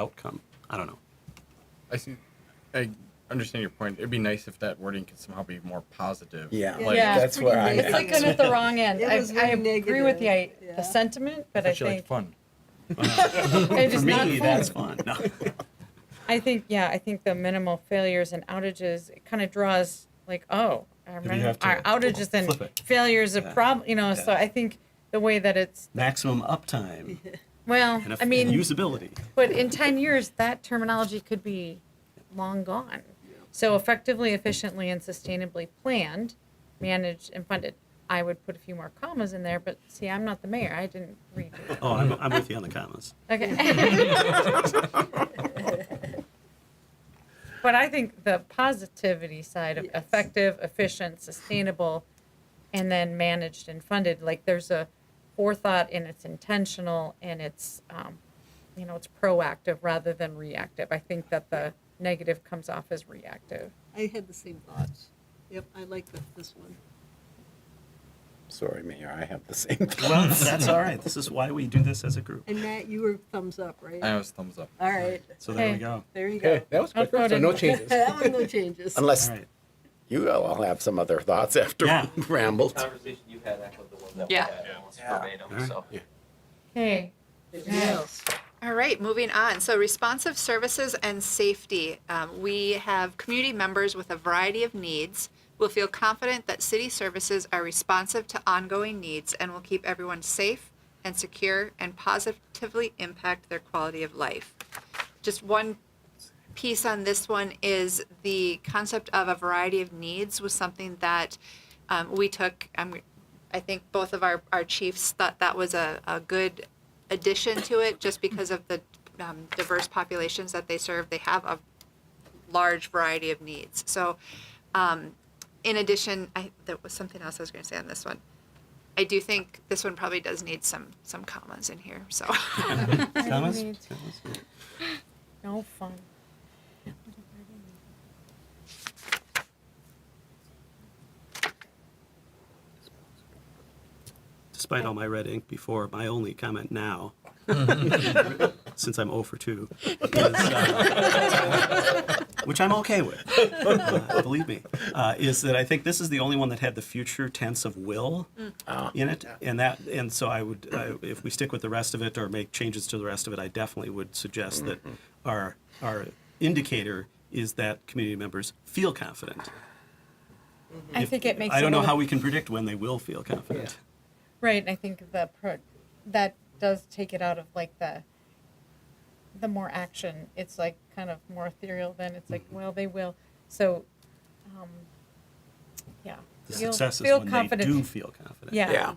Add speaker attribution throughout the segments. Speaker 1: outcome. I don't know.
Speaker 2: I see. I understand your point. It'd be nice if that wording could somehow be more positive.
Speaker 3: Yeah.
Speaker 2: Like,
Speaker 4: Yeah.
Speaker 3: That's where I'm
Speaker 4: It's like
Speaker 3: at.
Speaker 4: going at the wrong end.
Speaker 5: It
Speaker 4: I,
Speaker 5: was
Speaker 4: I
Speaker 5: very
Speaker 4: agree with the, i-
Speaker 5: negative, yeah.
Speaker 4: the sentiment, but I
Speaker 6: She liked
Speaker 4: think
Speaker 6: fun.
Speaker 4: it is
Speaker 1: For
Speaker 4: not
Speaker 1: me,
Speaker 4: fun.
Speaker 1: that's fun. No.
Speaker 4: I think, yeah, I think the minimal failures and outages, it kind of draws like, oh, our,
Speaker 6: you
Speaker 4: minim-
Speaker 6: have to
Speaker 4: our outages and
Speaker 6: flip it.
Speaker 4: failures a
Speaker 1: Yeah.
Speaker 4: problem, you know, so
Speaker 1: Yeah.
Speaker 4: I think the way that it's,
Speaker 1: Maximum uptime
Speaker 4: well,
Speaker 1: and, eff-
Speaker 4: I mean,
Speaker 1: and usability.
Speaker 4: But in 10 years, that terminology could be long gone. So effectively, efficiently, and sustainably planned, managed, and funded. I would put a few more commas in there, but see, I'm not the mayor. I didn't read it.
Speaker 1: Oh, I'm, I'm with you on the commas.
Speaker 4: Okay. but I think the positivity side of
Speaker 5: Yes.
Speaker 4: effective, efficient, sustainable, and then managed and funded, like there's a forethought and it's intentional and it's, um, you know, it's proactive rather than reactive. I think that the negative comes off as reactive.
Speaker 5: I had the same thoughts. Yep, I like the- this one.
Speaker 3: Sorry, Mayor, I have the same thing.
Speaker 1: Well, that's all right. This is why we do this as a group.
Speaker 5: And Matt, you were thumbs up,
Speaker 2: I
Speaker 5: right?
Speaker 2: was thumbs up.
Speaker 5: All right,
Speaker 1: So there we
Speaker 4: Okay.
Speaker 1: go.
Speaker 5: there you go.
Speaker 7: Okay, that was quick. So
Speaker 4: Upvoted.
Speaker 7: no changes.
Speaker 5: That one, no changes.
Speaker 1: All
Speaker 3: Unless
Speaker 1: right.
Speaker 3: you all have some other thoughts after
Speaker 1: Yeah.
Speaker 3: rambled.
Speaker 8: conversation you had echoed the one that we
Speaker 9: Yeah.
Speaker 8: had almost verbatim,
Speaker 1: Alright.
Speaker 8: so.
Speaker 4: Okay.
Speaker 5: Yes.
Speaker 9: All right, moving on. So responsive services and safety. Um, we have community members with a variety of needs. We'll feel confident that city services are responsive to ongoing needs and will keep everyone safe and secure and positively impact their quality of life. Just one piece on this one is the concept of a variety of needs was something that um, we took. Um, I think both of our, our chiefs thought that was a, a good addition to it just because of the um, diverse populations that they serve. They have a large variety of needs. So, um, in addition, I, there was something else I was going to say on this one. I do think this one probably does need some some commas in here. So,
Speaker 1: Commas?
Speaker 4: need-
Speaker 1: Commas? Yeah.
Speaker 4: No fun.
Speaker 1: Despite all my red ink before, my only comment now, since I'm 0 for 2, is, uh, which I'm okay with, uh, believe me, uh, is that I think this is the only one that had the future tense of will in it, and that, and so I would, I, if we stick with the rest of it or make changes to the rest of it, I definitely would suggest that our our indicator is that community members feel confident.
Speaker 4: I
Speaker 1: If-
Speaker 4: think it makes
Speaker 1: I don't
Speaker 4: a
Speaker 1: know
Speaker 4: little-
Speaker 1: how we can predict when they will feel confident.
Speaker 4: Right, and I think the pro- that does take it out of like the the more action. It's like kind of more ethereal. Then it's like,
Speaker 1: Mm-hmm.
Speaker 4: well, they will. So, um, yeah,
Speaker 1: The
Speaker 4: You'll
Speaker 1: success is
Speaker 4: feel
Speaker 1: when
Speaker 4: confident.
Speaker 1: they do feel confident.
Speaker 4: Yeah.
Speaker 3: Yeah.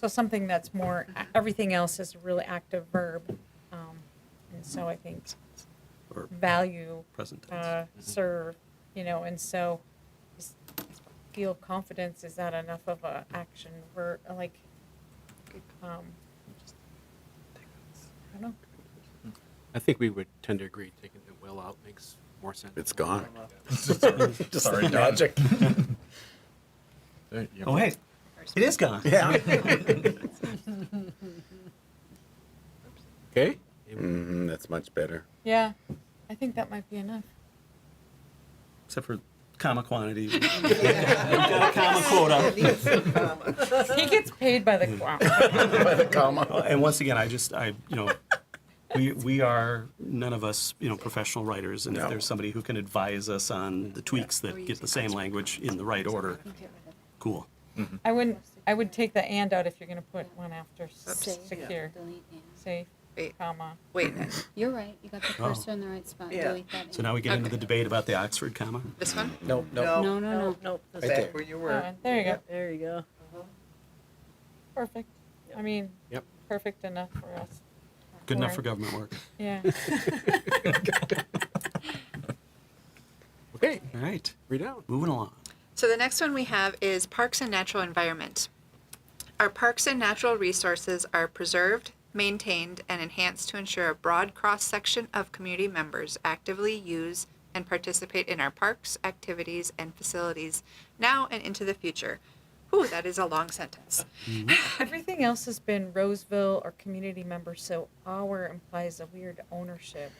Speaker 4: So something that's more everything else is a really active verb, um, and so I think
Speaker 1: Or
Speaker 4: value,
Speaker 1: present tense.
Speaker 4: uh, serve, you know, and so just feel confidence is that enough of a action verb? Like, um, I don't know.
Speaker 10: I think we would tend to agree taking the will out makes more sense.
Speaker 3: It's gone. Just
Speaker 2: Sorry,
Speaker 3: the
Speaker 2: Dan.
Speaker 3: logic.
Speaker 2: There you go.
Speaker 1: Oh, hey, it is gone.
Speaker 3: Yeah.
Speaker 7: Okay.
Speaker 3: Mm, that's much better.
Speaker 4: Yeah, I think that might be enough.
Speaker 1: Except for comma quantity. We've got a comma quota.
Speaker 5: Needs some comma.
Speaker 4: He gets paid by the wow.
Speaker 3: By the comma.
Speaker 1: Well, And once again, I just, I, you know, we, we are, none of us, you know, professional writers. And if
Speaker 3: No.
Speaker 1: there's somebody who can advise us on the tweaks that get the same language in the right order, cool.
Speaker 4: I wouldn't. I would take the and out if you're going to put one after s-
Speaker 11: Safe.
Speaker 4: secure,
Speaker 11: Delete and.
Speaker 4: safe,
Speaker 9: wait,
Speaker 4: comma.
Speaker 9: wait,
Speaker 11: You're right. You got the
Speaker 1: Oh.
Speaker 11: cursor in the right spot.
Speaker 5: Yeah.
Speaker 11: Delete that.
Speaker 1: So now we get into the
Speaker 9: Okay.
Speaker 1: debate about the Oxford comma.
Speaker 9: this one?
Speaker 7: No, no.
Speaker 11: No, no, no.
Speaker 5: Nope,
Speaker 3: Right there.
Speaker 5: that's-
Speaker 8: Back where you
Speaker 4: Oh,
Speaker 8: were.
Speaker 4: and there you go.
Speaker 5: there you go.
Speaker 4: Perfect. I mean,
Speaker 7: Yep.
Speaker 4: perfect enough for us.
Speaker 1: Good enough for
Speaker 4: Right.
Speaker 1: government work.
Speaker 4: Yeah.
Speaker 7: Okay,
Speaker 1: All right,
Speaker 7: read out.
Speaker 1: moving along.
Speaker 9: So the next one we have is parks and natural environment. Our parks and natural resources are preserved, maintained, and enhanced to ensure a broad cross-section of community members actively use and participate in our parks, activities, and facilities now and into the future. Ooh, that is a long sentence.
Speaker 4: Everything else has been Roseville or community members, so our implies a weird ownership.